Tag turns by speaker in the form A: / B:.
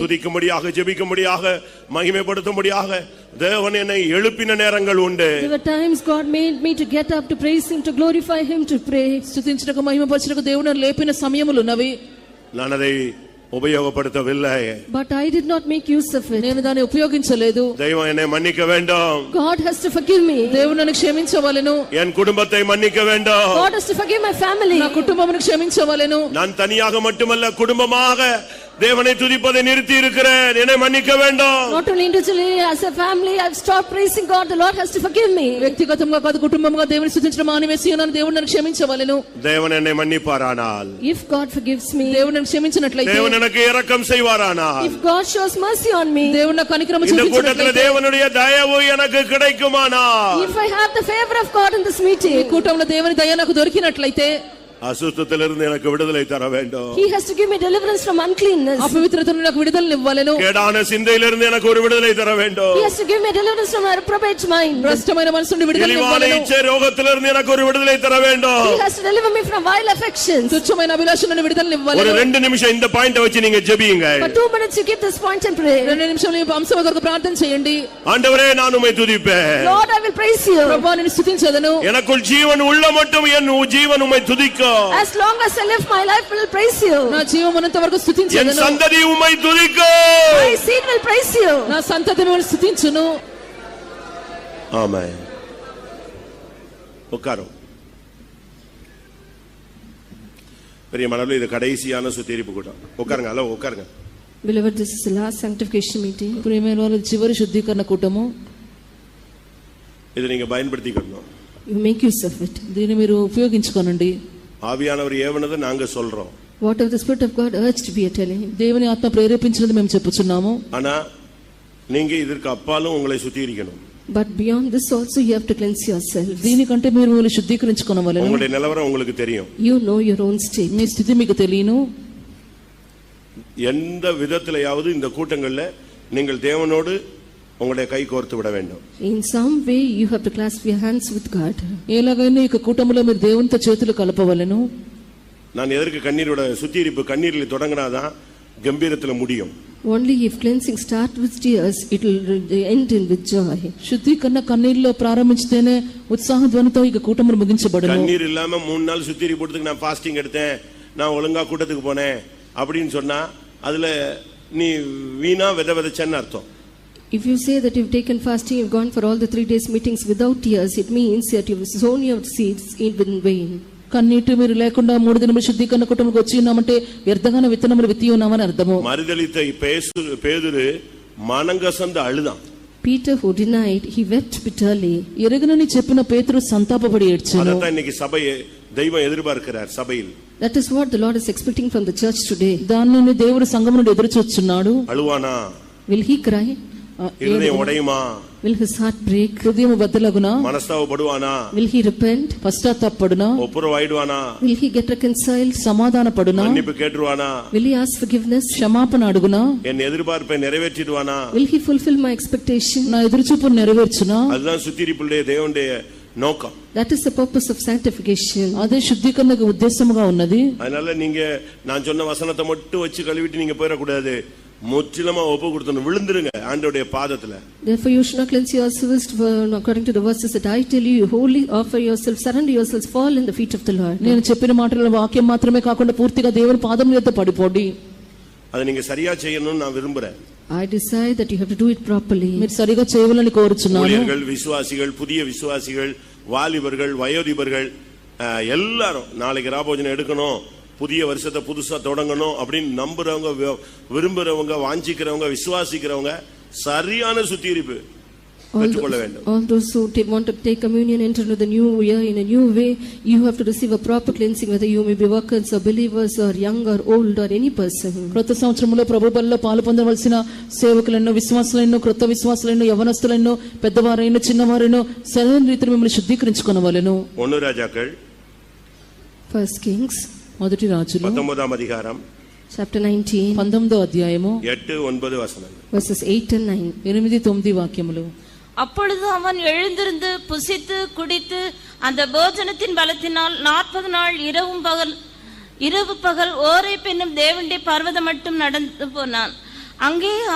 A: துதிக்கும்படியாக ஜெபிக்கும்படியாக மகிமைப்படுத்தும்படியாக தேவன் என்னை எழுப்பின நேரங்கள் உண்டு
B: There were times God made me to get up to praise Him, to glorify Him, to pray.
C: స్థుతించటకు మహిమపరచటకు దేవుని లేపిన సమయములున్నవి
A: நான் அதை உபயோகப்படுத்தவில்லை
B: But I did not make use of it.
C: నేను దాన్ని ఉపయోగించలేదు
A: தெய்வம் என்னை மன்னிக்க வேண்டும்
B: God has to forgive me.
C: దేవుడు నన్ను క్షమించవలెను
A: என் குடும்பத்தை மன்னிக்க வேண்டும்
B: God has to forgive my family.
C: నా కుటుంబమును క్షమించవలెను
A: நான் தனியாக மட்டுமல்ல குடும்பமாக தேவனை துதிப்பதை நிறுத்தி இருக்கிறேன் என்னை மன்னிக்க வேண்டும்
B: Not only individually, as a family, I've stopped praising God. The Lord has to forgive me.
C: వ్యక్తిగతంగా కాదు కుటుంబంగా దేవుని స్థుతించడం మానివేసి ఉన్నాను దేవుడు నన్ను క్షమించవలెను
A: தேவன் என்னை மன்னிப்பாரானால்
B: If God forgives me,
C: దేవుడు నన్ను క్షమించినట్లయితే
A: தேவன் எனக்கு இரக்கம் செய்வாரானால்
B: if God shows mercy on me,
C: దేవుడు నా కనిక్రమ
A: இந்த கூட்டத்தில்
C: చూపించినట్లయితే
A: தேவனுடைய தயவு எனக்கு கிடைக்குமானால்
B: if I have the favor of God in this
C: ఈ
B: meeting,
C: కూటంలో దేవుని దయ నాకు దొరికినట్లయితే
A: அசுத்தத்திலிருந்து எனக்கு விடுதலை தர வேண்டும்
B: He has to give me deliverance from uncleanness.
C: అపవిత్రత నుండి నాకు విడుదలను ఇవ్వలేను
A: கேடான சிந்தையிலிருந்து எனக்கு ஒரு விடுதலை தர
B: He
A: வேண்டும்
B: has to give me deliverance from my reprobate mind.
C: భ్రష్టమైన మనసు నుండి విడుదల
A: இழிவான
C: ఇవ్వలేను
A: இச்சை ரோகத்திலிருந்து எனக்கு ஒரு விடுதலை தர வேண்டும்
B: He has to deliver me from vile affections.
C: తుచ్చమైన అభిలాష నుండి విడుదలను
A: ஒரு
C: ఇవ్వలేను
A: ரெண்டு நிமிஷம் இந்த பாயிண்ட வச்சு நீங்க ஜெபியுங்க
B: For two minutes, you keep this point and pray.
C: రెండు నిమిషాలు ఈ అంశం కొరకు ప్రార్థన చేయండి
A: ஆண்டவரே நான் உம்மை துதிப்பேன்
B: Lord, I will praise you.
C: ప్రభా నేను స్థుతించదను
A: எனக்குள் ஜீவன் உள்ள மட்டும் என் உ- ஜீவன் உம்மை துதிக்கும்
B: As long as I live, my life will praise you.
C: నా జీవం ఉన్నంత వరకు
A: என்
C: స్థుతించదను
A: சந்ததி உம்மை துதிக்கும்
B: My seed will praise you.
C: నా సంతతి మిమ్మల్ని స్థుతించును
A: ஆமா உட்காரும் பெரிய மனதில் இது கடைசியான சுத்திரிப்பு கூட்டம் உட்காருங்க ஹலோ உட்காருங்க
B: Beloved, this is the last sanctification meeting.
C: ప్రియమైన వారు చివరి శుద్ధీకరణ కూటము
A: இதை நீங்க பயன்படுத்திக்கணும்
B: You make use of it.
C: దీన్ని మీరు ఉపయోగించుకోనండి
A: ஆவியானவர் ஏவனதை நாங்க சொல்றோம்
B: Whatever the Spirit of God urged, we are telling him.
C: దేవుని ఆత్మ ప్రేరేపించినది మేము చెప్పుచున్నాము
A: ஆனா நீங்க இதற்கு அப்பாலும் உங்களை சுத்திகரிக்கணும்
B: But beyond this also, you have to cleanse yourself.
C: దీనికంటే మీరు మిమ్మల్ని శుద్ధీకరించుకోనవలెను
A: உங்களுடைய நிலவரம் உங்களுக்கு தெரியும்
B: You know your own state.
C: మీ స్థితి మీకు తెలియను
A: எந்த விதத்திலையாவது இந்த கூட்டங்கள்ல நீங்கள் தேவனோடு உங்களுடைய கை கோர்த்து விட வேண்டும்
B: In some way, you have to clasp your hands with God.
C: ఎలాగైనా ఈ కూటములో మీరు దేవునితో చేతులు కలపవలెను
A: நான் எதற்கு கண்ணீரோட சுத்திகரிப்பு கண்ணீரில் தொடங்கினாதான் கம்பீரத்துல முடியும்
B: Only if cleansing starts with tears, it will re- end in with joy.
C: శుద్ధీకరణ కన్నీళ్ళలో ప్రారంభించితేనే ఉత్సాహ ధ్వనితో ఈ కూటములు ముగించబడను
A: கண்ணீர் இல்லாம மூணு நாள் சுத்திரி போட்டதுக்கு நான் ஃபாஸ்டிங் எடுத்தேன் நான் ஒழுங்கா கூட்டத்துக்கு போனேன் அப்படின்னு சொன்னா அதுல நீ வீணா வித விதைச்சன்னு அர்த்தம்
B: If you say that you've taken fasting, you've gone for all the three days meetings without tears, it means that you've sown your seeds in vain.
C: కన్నీటి మీరు లేకుండా మూడు దినములు శుద్ధీకరణ కూటములకు వచ్చి ఉన్నామంటే వ్యర్థగాన విత్తనములు విత్తి ఉన్నామని అర్థము
A: மறுதளித்த பேசு பேதுரு மனங்கசந்து அழுதான்
B: Peter, who denied, he wept bitterly.
C: ఎరగనని చెప్పిన పేతురు సంతాపపడి ఏడ్చాను
A: அதைத்தான் இன்னைக்கு சபையை தெய்வம் எதிர்பார்க்கிறார் சபையில்
B: That is what the Lord is expecting from the church today.
C: దానిని దేవుడు సంఘం నుండి ఎదురు చూస్తున్నాడు
A: அழுவானா
B: Will he cry? Uh,
C: ఆ,
A: இருதயம் உடையுமா
B: Will his heart break?
C: హృదయం బద్దలగునా
A: மனஸ்தாவப்படுவானா
B: Will he repent?
C: పశ్చాత్తాపడునా
A: ஒப்புரவாயிடுவானா
B: Will he get reconciled?
C: సమాధాన పడునా
A: மன்னிப்பு கேட்டுருவானா
B: Will he ask forgiveness?
C: క్షమాపణ అడుగునా
A: என் எதிர்பார்ப்பை நிறைவேற்றிடுவானா
B: Will he fulfill my expectation?
C: నా எதிர்ச்சுப்பு నెరవేర్చునా
A: அதுதான் சுத்திரிப்புடைய தேவனுடைய நோக்கம்
B: That is the purpose of sanctification.
C: అదే శుద్ధీకరణకు ఉద్దేశముగా ఉన్నది
A: அதனால நீங்க நான் சொன்ன வசனத்தை மட்டும் வச்சு கழுவிட்டு நீங்க போயிடக்கூடாது முற்றிலுமா ஒப்பு கொடுத்தணும் விழுந்துருங்க ஆண்டோடைய பாதத்துல
B: Therefore, you should not cleanse yourselves for- according to the verses that I tell you. You wholly offer yourselves, surrender yourselves, fall in the feet of the Lord.
C: నేను చెప్పిన మాటల వాక్యం మాత్రమే కాకుండా పూర్తిగా దేవుని పాదం చేత పడిపోండి
A: அதை நீங்க சரியா செய்யணும்னு நான் விரும்புறேன்
B: I decide that you have to do it properly.
C: మీరు సరిగా చేయవాలని కోరుచున్నాను
A: ஊழியர்கள் விசுவாசிகள் புதிய விசுவாசிகள் வாலிபர்கள் வயோதிபர்கள் அஹ், எல்லாரும் நாளைக்கு ராபோஜனம் எடுக்கணும் புதிய வருஷத்தை புதுசா தொடங்கணும் அப்படின்னு நம்புறவங்க வி- விரும்புறவங்க வாஞ்சிக்கிறவங்க விசுவாசிக்கிறவங்க சரியான சுத்திகரிப்பு
B: All
A: பெற்றுக்கொள்ள
B: those,
A: வேண்டும்
B: all those who ta- want to take communion enter into the new year in a new way, you have to receive a proper cleansing, whether you may be workers or believers or young or old or any person.
C: క్రొత్త సంవత్సరంలో ప్రభు బలిలో పాలు పొందవలసిన సేవకులను విశ్వాసులను క్రొత్త విశ్వాసులను యవనస్తులను పెద్దవారైన చిన్నవారైన సరైన రీతిని మిమ్మల్ని శుద్ధీకరించుకునవలెను
A: ஒன்னு ராஜாக்கள்
B: First Kings,
C: మొదటి రాజులు
A: பத்தொன்பதாம் அதிகாரம்
B: chapter 19,
C: పంతొమ్మిదో అధ్యాయము
A: எட்டு ஒன்பது வசனம்
B: verses 8 and 9.
C: ఎనిమిది తొమ్మిది వాక్యములు
D: அப்பொழுது அவன் எழுந்திருந்து புசித்து குடித்து அந்த போஜனத்தின் பலத்தினால் நாற்பது நாள் இரவும் பகல் இரவு பகல் ஓரை பெண்ணும் தேவண்டி பர்வதம் மட்டும் நடந்து போனான் அங்கே